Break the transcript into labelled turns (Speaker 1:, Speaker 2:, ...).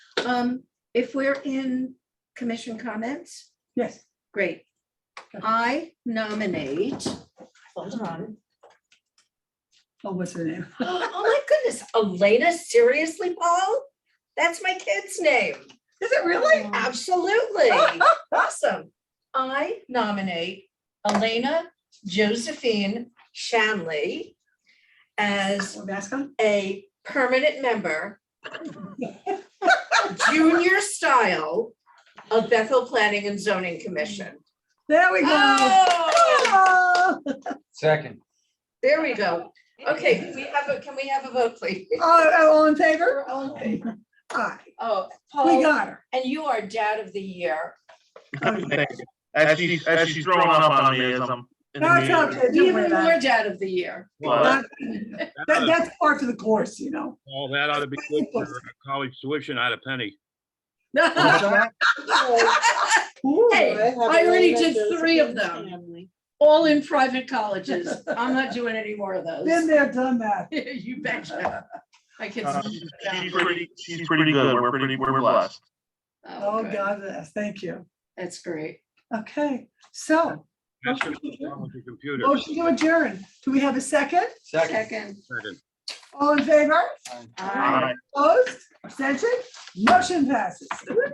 Speaker 1: Um, if we're in commission comments,
Speaker 2: Yes.
Speaker 1: great. I nominate,
Speaker 3: Hold on.
Speaker 2: Oh, what's her name?
Speaker 3: Oh my goodness, Elena, seriously, Paul? That's my kid's name.
Speaker 2: Is it really?
Speaker 3: Absolutely. Awesome. I nominate Elena Josephine Shanley as
Speaker 2: Well, that's come.
Speaker 3: a permanent member, junior style of Bethel Planning and Zoning Commission.
Speaker 2: There we go.
Speaker 3: Oh,
Speaker 2: Oh,
Speaker 4: Second.
Speaker 3: There we go. Okay, can we have a, can we have a vote, please?
Speaker 2: oh, all in favor?
Speaker 3: All in favor.
Speaker 2: Aye.
Speaker 3: Oh,
Speaker 2: We
Speaker 3: Paul,
Speaker 2: got her.
Speaker 3: and you are dad of the year.
Speaker 5: Thanks. As she's, as she's throwing up on me as I'm. in the
Speaker 2: That's
Speaker 5: meeting.
Speaker 2: okay. Don't worry
Speaker 3: Even
Speaker 2: about
Speaker 3: more
Speaker 2: it.
Speaker 3: dad of the year.
Speaker 5: Well,
Speaker 2: That- that- That's part of the course, you know.
Speaker 6: All that ought to be good for a college tuition, not a penny.
Speaker 3: Hey, I already did three of them, all in private colleges. I'm not doing any more of
Speaker 2: Been
Speaker 3: those.
Speaker 2: there, done that.
Speaker 3: You betcha. My kids.
Speaker 5: uh, She's pretty, she's pretty good. We're pretty, we're blessed.
Speaker 2: Oh,
Speaker 3: good.
Speaker 2: God, yes, thank you.
Speaker 3: That's great.
Speaker 2: Okay, so,
Speaker 6: That's what's wrong with your computer.
Speaker 2: motion to adjourn. Do we have a second?
Speaker 3: Second.
Speaker 6: Second.
Speaker 2: All in favor?
Speaker 3: Aye.
Speaker 2: Opposed? Abstention? Motion passes.